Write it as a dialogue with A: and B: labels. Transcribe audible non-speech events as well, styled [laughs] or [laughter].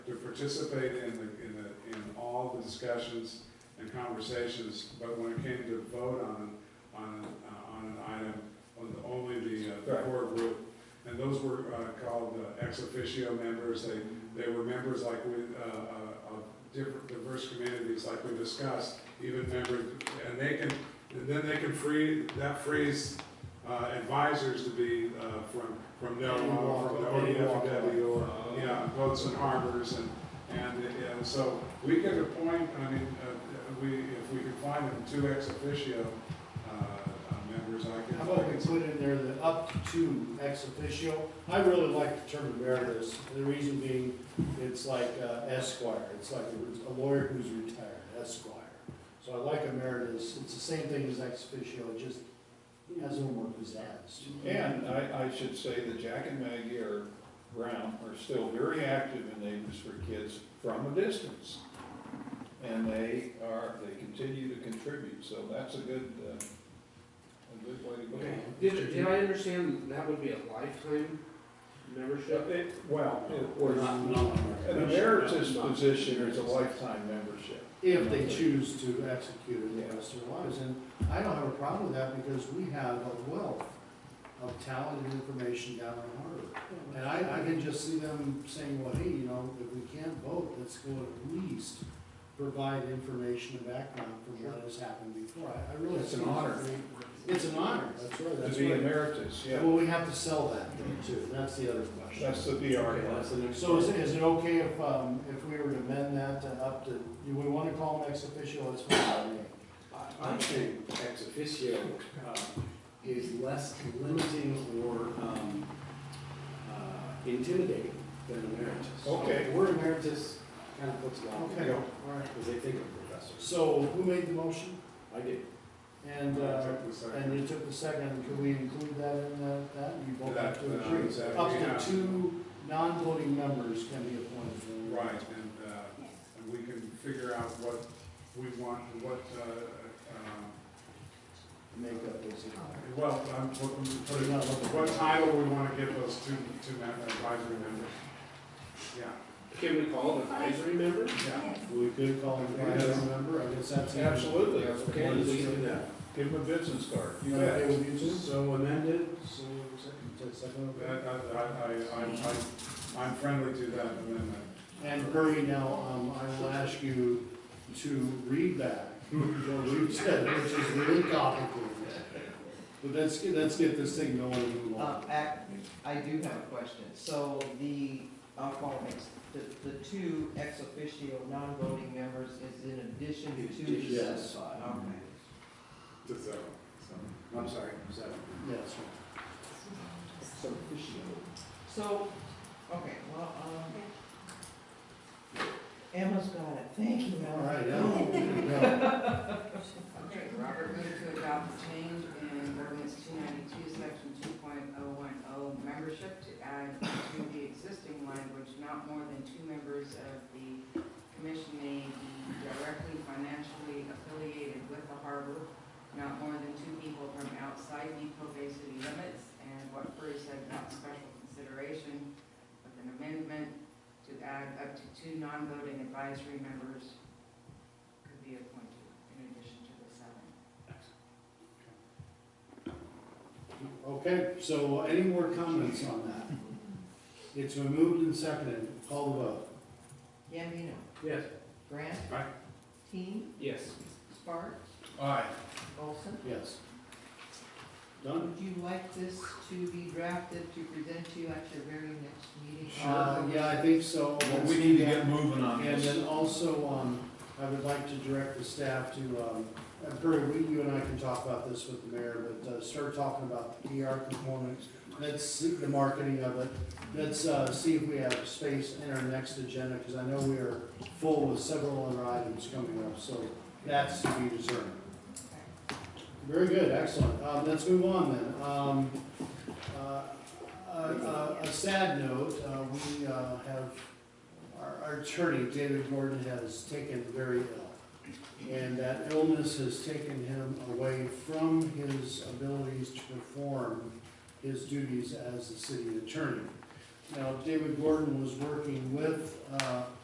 A: participate in the, in the, in all the discussions and conversations, but when it came to vote on, on, uh, on an item, on the- only the, uh, the
B: Right.
A: core group. And those were, uh, called uh, ex officio members, they, they were members like we, uh, uh, of different, diverse communities like we discussed, even members, and they can, and then they can free, that frees uh, advisors to be uh, from, from Del
B: Any
A: Mar,
B: walk
A: from the
B: of- any walk of
A: ODFW, or,
B: life.
A: yeah, boats and harbors, and, and, and so we could appoint, I mean, uh, we, if we could find them two ex officio uh, uh, members, I could.
B: How about we put in there the up to ex officio? I really like the term emeritus, the reason being, it's like uh, esquire, it's like a lawyer who's retired, esquire. So I like emeritus, it's the same thing as ex officio, it just has no more pizzazz.
C: And I, I should say that Jack and Maggie are, Brown, are still very active in Neighbors for Kids from a distance. And they are, they continue to contribute, so that's a good, uh, a good way to go.
D: Okay, did, did I understand that would be a lifetime
C: But
D: membership?
C: it- Well, it
A: Or
C: was,
A: not, not.
C: an emeritus position is a lifetime membership.
B: If they choose to execute it the rest of their lives, and I don't have a problem with that because we have a wealth of talented information down in Harvard. And I, I can just see them saying, well, hey, you know, if we can't vote, let's go at least provide information and background from what has happened before. I, I really.
C: It's an
B: see
C: honor.
B: that they- It's an honor, that's right,
C: To
B: that's
C: be
B: right.
C: emeritus, yeah,
B: Well, we have to sell that though too, that's the other question.
C: that's the VR part.
B: So is, it- is it okay if, um, if we were to amend that to up to, do we wanna call them ex officio, that's fine.
E: I I think ex officio uh, is less limiting or um, uh, intimidating than emeritus.
C: Okay.
E: The word emeritus kind of puts a lot of
B: Okay,
E: people,
B: alright.
E: because they think of professors.
B: So who made the motion?
E: I did.
B: And, uh, and you took the second, could we include that in that, that, you both have to
A: That, uh,
B: agree?
A: that we
B: Up
A: have-
B: to two non-voting members can be appointed.
A: Right, and, uh, and we can figure out what we want, and what, uh,
B: Makeup is.
A: uh, well, I'm, what,
B: But not looking-
A: what title we wanna give those two, two mem- advisory members. Yeah.
D: Can we call it advisory member?
A: Yeah,
B: We could call him a
A: Yes.
B: member, I guess that's.
C: Absolutely,
D: Okay, we can do that.
C: give them a business card.
B: You okay with you two?
E: So amended,
B: So, second, take second of
A: I,
B: that.
A: I, I, I, I'm friendly to that amendment.
B: And Curry, now, um, I will ask you to read back what you said, [laughs] which is really topical. But let's, get- let's get this thing going and move
F: Uh,
B: on.
F: ac- I do have a question. So the, I'll call it, ex- the, the two ex officio non-voting members is in addition to the
B: Yes.
F: certified? Okay.
A: To so,
E: I'm sorry, seven.
B: Yes, sir.
E: So officio.
F: So, okay, well, um, Emma's got it. Thank you,
B: all
F: Emma.
B: right, yeah.
G: Okay, Robert moved to adopt the change in ordinance two ninety-two, section two point oh one oh, membership to add to the existing language, not more than two members of the commission may be directly financially affiliated with the harbor, not more than two people from outside Depot Bay city limits, and what Bruce said about special consideration with an amendment to add up to two non-voting advisory members could be appointed in addition to the seven.
B: Okay, so any more comments on that? It's been moved and seconded, call the vote.
F: Yambino,
D: Yes.
F: Grant?
A: Aye.
F: Team,
D: Yes.
F: Sparks,
A: Aye.
F: Olson?
B: Yes. Done?
F: Would you like this to be drafted to present to you at your very next meeting?
B: Uh, Yeah, I think so.
C: Well, we need to get moving on
B: Um, And
C: this.
B: then also, um, I would like to direct the staff to, um, and Perry, we, you and I can talk about this with the mayor, but, uh, start talking about the PR components. Let's see the marketing of it. Let's, uh, see if we have space in our next agenda, because I know we are full with several other items coming up, so that's to be discerned. Very good, excellent. Um, let's move on then. Um, uh, a, a sad note, uh, we, uh, have our, our attorney, David Gordon, has taken very ill. And that illness has taken him away from his abilities to perform his duties as the city attorney. Now, David Gordon was working with, uh,